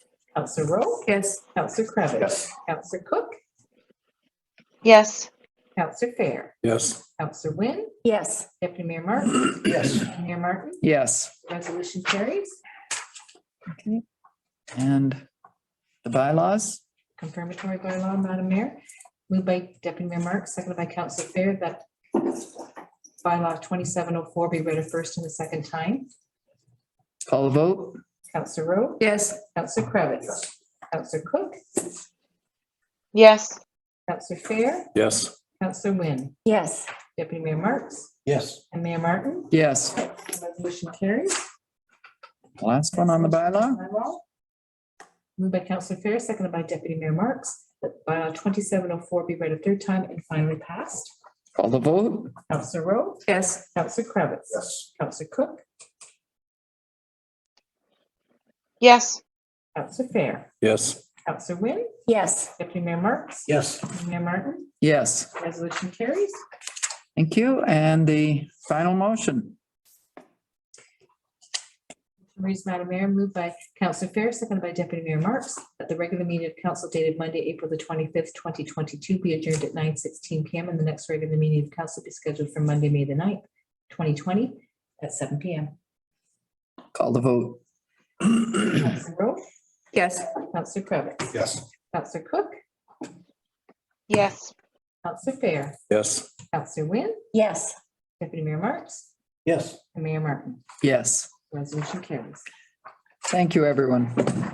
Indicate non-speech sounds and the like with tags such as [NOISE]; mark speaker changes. Speaker 1: Counselor Rowe,
Speaker 2: Yes.
Speaker 1: Counselor Cravitz,
Speaker 3: Yes.
Speaker 1: Counselor Cook,
Speaker 4: yes,
Speaker 1: Counselor Fair,
Speaker 3: Yes.
Speaker 1: Counselor Wynn,
Speaker 2: Yes.
Speaker 1: Deputy Mayor Martin,
Speaker 3: Yes.
Speaker 1: Mayor Martin,
Speaker 5: Yes.
Speaker 1: resolution carries.
Speaker 5: Okay. And the bylaws?
Speaker 1: Confirmatory bylaw, Madam Mayor, moved by Deputy Mayor Marks, seconded by Counselor Fair that bylaw twenty-seven oh four be read a first and a second time.
Speaker 5: Call the vote?
Speaker 1: Counselor Rowe,
Speaker 2: Yes.
Speaker 1: Counselor Cravitz, Counselor Cook,
Speaker 4: yes,
Speaker 1: Counselor Fair,
Speaker 3: Yes.
Speaker 1: Counselor Wynn,
Speaker 2: Yes.
Speaker 1: Deputy Mayor Marks,
Speaker 3: Yes.
Speaker 1: and Mayor Martin,
Speaker 5: Yes.
Speaker 1: resolution carries.
Speaker 5: Last one on the bylaw?
Speaker 1: Moved by Counselor Fair, seconded by Deputy Mayor Marks, that bylaw twenty-seven oh four be read a third time and finally passed.
Speaker 5: Call the vote?
Speaker 1: Counselor Rowe,
Speaker 2: Yes.
Speaker 1: Counselor Kravitz,
Speaker 3: Yes.
Speaker 1: Counselor Cook,
Speaker 4: yes,
Speaker 1: Counselor Fair,
Speaker 3: Yes.
Speaker 1: Counselor Wynn,
Speaker 2: Yes.
Speaker 1: Deputy Mayor Marks,
Speaker 3: Yes.
Speaker 1: Mayor Martin,
Speaker 5: Yes.
Speaker 1: resolution carries.
Speaker 5: Thank you. And the final motion?
Speaker 1: Reads, Madam Mayor, moved by Counselor Fair, seconded by Deputy Mayor Marks, that the regular meeting of council dated Monday, April the twenty-fifth, twenty twenty-two be adjourned at nine sixteen PM and the next regular meeting of council be scheduled for Monday, May the 9th, twenty twenty, at seven PM.
Speaker 5: Call the vote?
Speaker 1: Counselor Rowe,
Speaker 2: Yes.
Speaker 1: Counselor Cravitz,
Speaker 3: Yes.
Speaker 1: Counselor Cook,
Speaker 4: yes,
Speaker 1: Counselor Fair,
Speaker 3: Yes.
Speaker 1: Counselor Wynn,
Speaker 2: Yes.
Speaker 1: Deputy Mayor Marks,
Speaker 3: Yes.
Speaker 1: and Mayor Martin.
Speaker 5: [CLEARS THROAT] Yes.
Speaker 1: Resolution carries.
Speaker 5: Thank you, everyone.